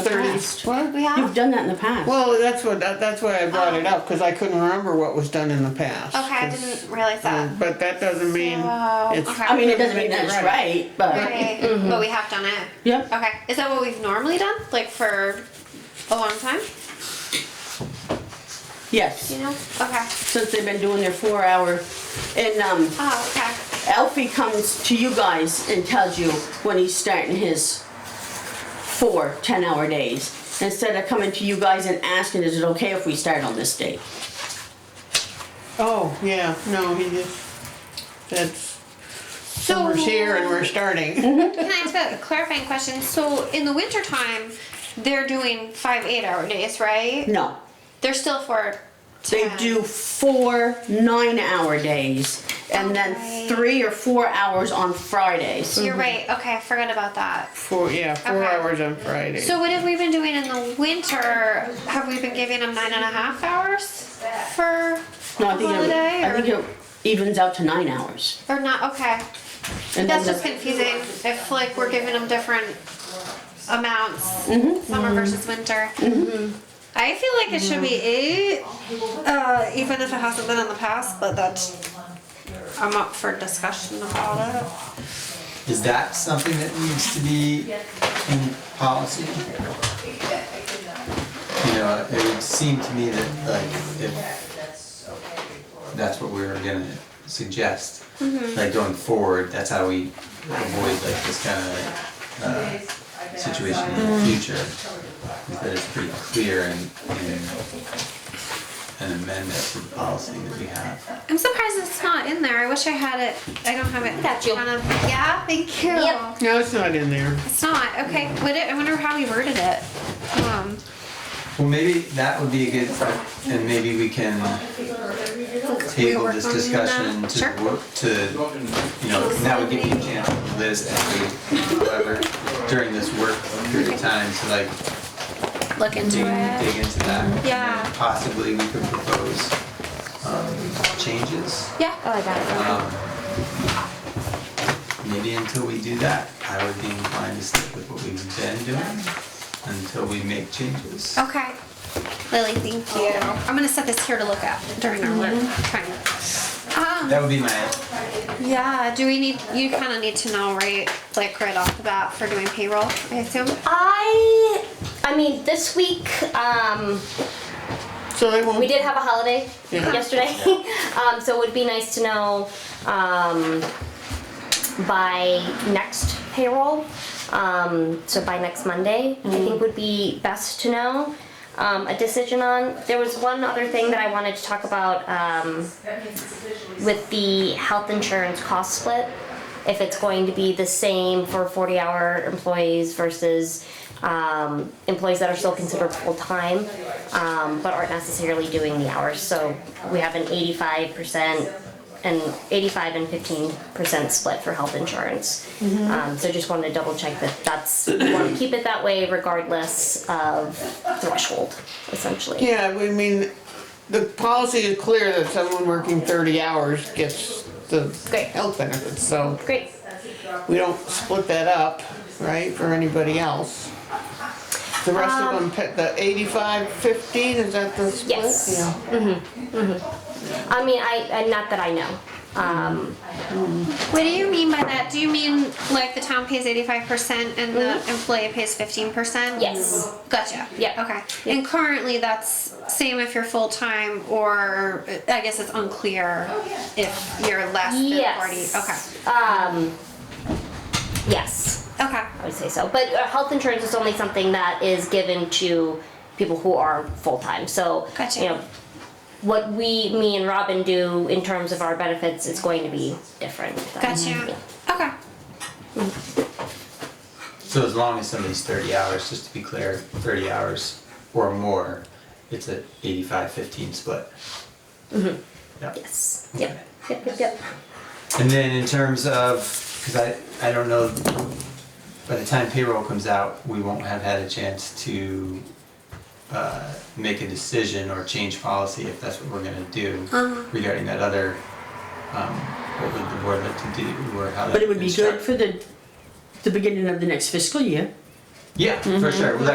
past. What? We have? You've done that in the past. Well, that's what, that- that's why I brought it Oh. up, because I couldn't remember what was done in the past. Okay, I 'cause- didn't realize that. um, But that doesn't mean So, it's. okay. I mean, it doesn't mean that's right, but, Okay, but we have done it. yep. Okay, is that what we've normally done, like for a long time? Do Yes, you know? Okay. since they've been doing their four hour. And um, Oh, okay. Alfie comes to you guys and tells you when he's starting his four 10 hour days. Instead of coming to you guys and asking, is it okay if we start on this date? Oh, yeah, no, he just, that's, so we're here and we're Mhm. starting. Can I ask a clarifying question? So in the wintertime, they're doing five eight-hour days, right? No. They're still for. They 10. do four nine hour days and Okay. then three or four hours on Fridays. You're right. Okay, I forgot about that. Four, yeah, four Okay. hours on Friday. So what have we been doing in the winter? Have we been giving them nine and a half hours for No, I think, it, holiday I or- think it evens out to nine hours. or not? Okay. And That's then just the- confusing if like we're giving them different amounts, summer versus winter. Mm-hmm. I feel like it should be eight, uh, even if it hasn't been in the past, but that's, I'm up for discussion about it. Is that something that needs to be in policy? You know, it would seem to me that like if that's what we were gonna suggest, like going forward, that's how we avoid like this kind of uh, situation in the future. Is that it's pretty clear and, and an amendment for policy that we have. I'm surprised it's not in there. I wish I had it. I don't have it. Got you. yeah, thank you. Yep. No, it's not in there. It's not okay. Would it, I wonder how we worded it. Um, Well, maybe that would be a good, and maybe we can table work this on that? discussion to Sure. work, to, you know, that would give you a chance to Liz and me, whoever, during this work period of time to like look into dig, it. dig into that. and Yeah. Possibly we could propose, um, changes. Yeah. Oh, I got Um, Maybe until we do that, I would be inclined to stick with what we've been doing until we make changes. Okay. Lily, thank you. I'm gonna set this here to look at during our work time. Um, That would be my yeah, do we need, you kinda need to know, right, like right off the bat for doing payroll, I assume? I, I mean, this week, um, So they won't. we did have a holiday Yeah. yesterday, um, so it would be nice to know um, by next payroll. Um, so by next Monday, I think would be best to know um, a decision on. There was one other thing that I wanted to talk about um, with the health insurance cost split. If it's going to be the same for 40-hour employees versus um, employees that are still considered full-time, um, but aren't necessarily doing the hours. So we have an 85% and 85 and 15% split for health insurance. Um, so just wanted to double check that that's, we want to keep it that way regardless of threshold, essentially. Yeah, we mean, the policy is clear that someone working thirty hours gets the Great. health benefits, so Great. we don't split that up, right, for anybody else. The rest of them, pa- the eighty-five, fifteen, is that the split? Yes. Mm-hmm. Yeah. I mean, I, I not that I know. Um, What do you mean by that? Do you mean like the town pays eighty-five percent and the employee pays fifteen percent? Mm-hmm. Yes. Gotcha. Yeah. Okay. And currently, that's same if you're full time or I guess it's unclear if you're less yes. than forty. Um, yes. Okay. Okay. I would say so. But uh, health insurance is only something that is given to people who are full time. So Gotcha. you know, what we, me and Robin do in terms of our benefits is going to be different. than- Gotcha. Okay. So as long as somebody's thirty hours, just to be clear, thirty hours or more, it's a 85-15 split. Yeah. Mm-hmm. Yes. Yep. Yep. Yep. Yep. And then in terms of, cause I, I don't know, by the time payroll comes out, we won't have had a chance to uh, make a decision or change policy if that's what we're gonna do Uh-huh. regarding that other, um, what would the board like to do or how to But it would be good instruct- for the, the beginning of the next fiscal year. Mm-hmm. Yeah, for sure, Well,